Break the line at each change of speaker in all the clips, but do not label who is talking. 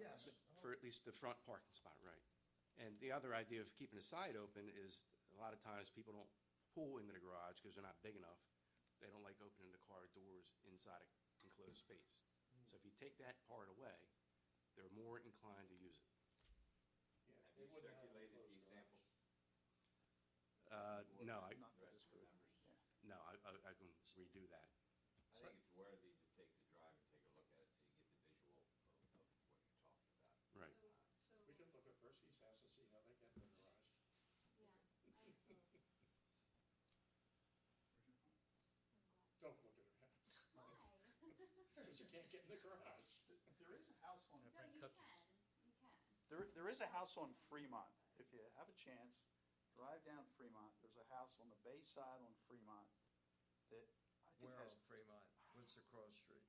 Yes.
for at least the front parking spot, right? And the other idea of keeping the side open is, a lot of times, people don't pull into the garage because they're not big enough. They don't like opening the car doors inside a enclosed space. So if you take that part away, they're more inclined to use it.
Yeah,
Have
they
you
wouldn't have a
circulated the
closed garage.
example?
Uh, no, I,
to the rest of the members?
no, I, I- I can redo that.
I think it's worthy to take the drive and take a look at it so you get the visual of, of what you're talking about.
Oh,
Right.
So,
We could look at Percy's house and see how they get in the garage.
yeah, I,
Don't look at her house,
why?
because you can't get in the garage.
There is a house on,
No, you can, you can.
there, there is a house on Fremont. If you have a chance, drive down Fremont. There's a house on the bay side on Fremont that I think
Where on
has,
Fremont? What's the cross street?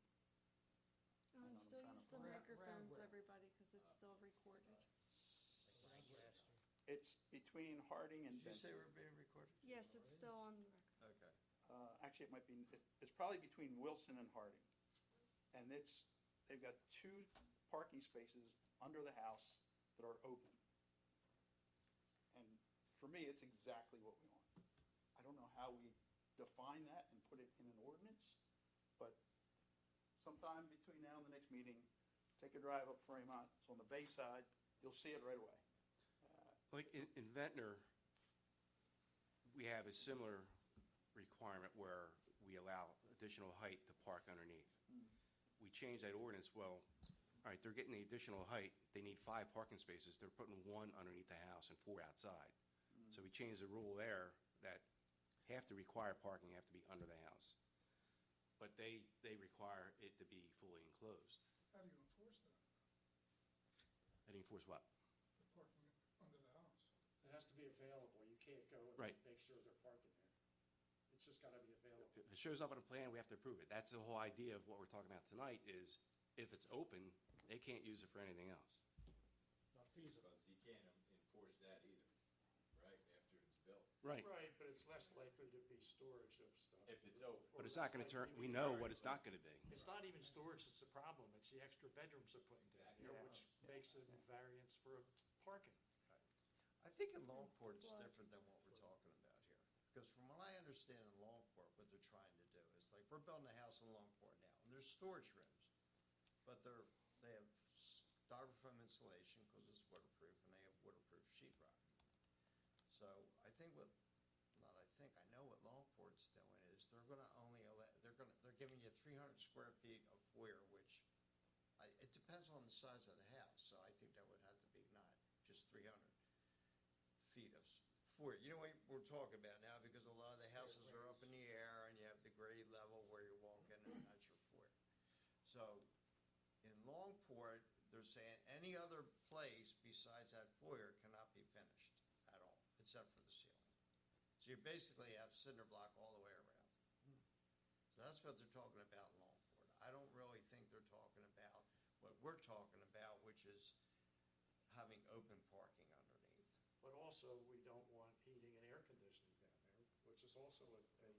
Hang on,
And
I'm trying to
still use the
find-
microphones, everybody, because it's still recorded.
it's between Harding and
Did you say
Benson.
we're being recorded?
Yes, it's still on the record.
Okay.
Uh, actually, it might be, it- it's probably between Wilson and Harding. And it's, they've got two parking spaces under the house that are open. And for me, it's exactly what we want. I don't know how we define that and put it in an ordinance, but sometime between now and the next meeting, take a drive up Fremont, it's on the bay side, you'll see it right away. Uh,
Like in, in Ventnor, we have a similar requirement where we allow additional height to park underneath. We changed that ordinance, well, all right, they're getting the additional height, they need five parking spaces, they're putting one underneath the house and four outside.
음.
So we changed the rule there that have to require parking, have to be under the house. But they, they require it to be fully enclosed.
How do you enforce that,
That enforce what?
the parking under the house?
It has to be available, you can't go and
Right.
make sure they're parking there. It's just gotta be available.
If it shows up on a plan, we have to approve it. That's the whole idea of what we're talking about tonight is if it's open, they can't use it for anything else.
Not feasible. Because you can't en- enforce that either, right, after it's built.
Right.
Right, but it's less likely to be storage of stuff.
If it's open.
Or
But it's
less
not gonna
likely
turn,
to
we
be
know
carried.
what it's not gonna be.
It's not even storage that's the problem, it's the extra bedrooms they're putting down here,
Yeah.
which makes a variance for parking.
I think in Longport, it's
Well-
different than what we're talking about here. Because from what I understand in Longport, what they're trying to do is like, we're building a house in Longport now, and there's storage rooms. But they're, they have styrofoam insulation because it's waterproof, and they have waterproof sheetrock. So I think what, not I think, I know what Longport's doing is they're gonna only allow, they're gonna, they're giving you three hundred square feet of foyer, which I, it depends on the size of the house, so I think that would have to be not just three hundred feet of s- foyer. You know what we're talking about now, because a lot of the houses are up in the air and you have the grade level where you walk in and that's your foyer. So in Longport, they're saying any other place besides that foyer cannot be finished at all, except for the ceiling. So you basically have cinder block all the way around. So that's what they're talking about in Longport. I don't really think they're talking about what we're talking about, which is having open parking underneath.
But also, we don't want heating and air conditioning down there, which is also a, a,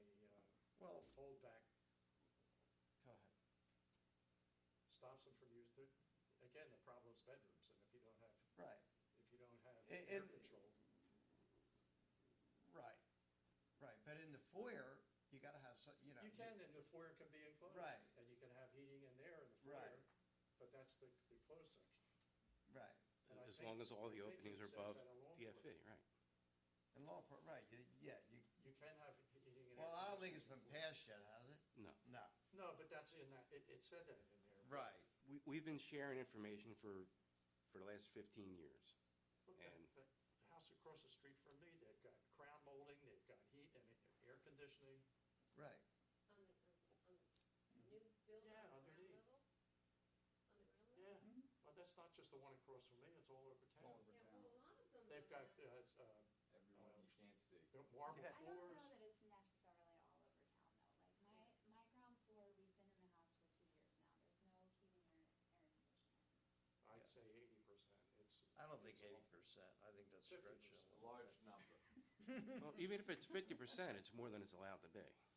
a, uh,
Well,
holdback,
go ahead.
stops them from using, it. again, the problem's bedrooms, and if you don't have,
Right,
if you don't have
And-
air
and-
control,
right, right. But in the foyer, you gotta have some, you know.
you can, and the foyer can be enclosed.
Right.
And you can have heating and air in the
Right.
foyer, but that's the, the closed section.
Right.
And I
As
think-
long as all the
I think it
openings are
says
above E.
that in Longport.
DFE, right.
In Longport, right, you, yeah, you,
You can have heating and air.
well, I don't think it's
conditioning.
been passed yet, has it?
No.
No,
No, but that's in that, it, it said that in there.
right.
We, we've been sharing information for, for the last fifteen years.
But
And-
but the house across the street from me, they've got crown molding, they've got heat and air conditioning.
Right.
On the, on the new building,
Yeah,
ground
underneath.
level? On the ground
Yeah,
level?
Mm-hmm. but that's not just the one across from me, it's all over town.
over.
Yeah, well, a lot of them.
They've
are
got,
now.
uh, it's, uh,
Everyone you can't see.
marble
Yeah.
I don't
floors.
know that it's necessarily all over town though, like my, my ground floor, we've been in the house for two years now, there's no heating or air conditioning.
I'd say eighty percent, it's.
I don't think
it's
eighty
all-
percent. I think that's stretching a
A
little.
large number.
Well, even if it's fifty percent, it's more than it's allowed to be.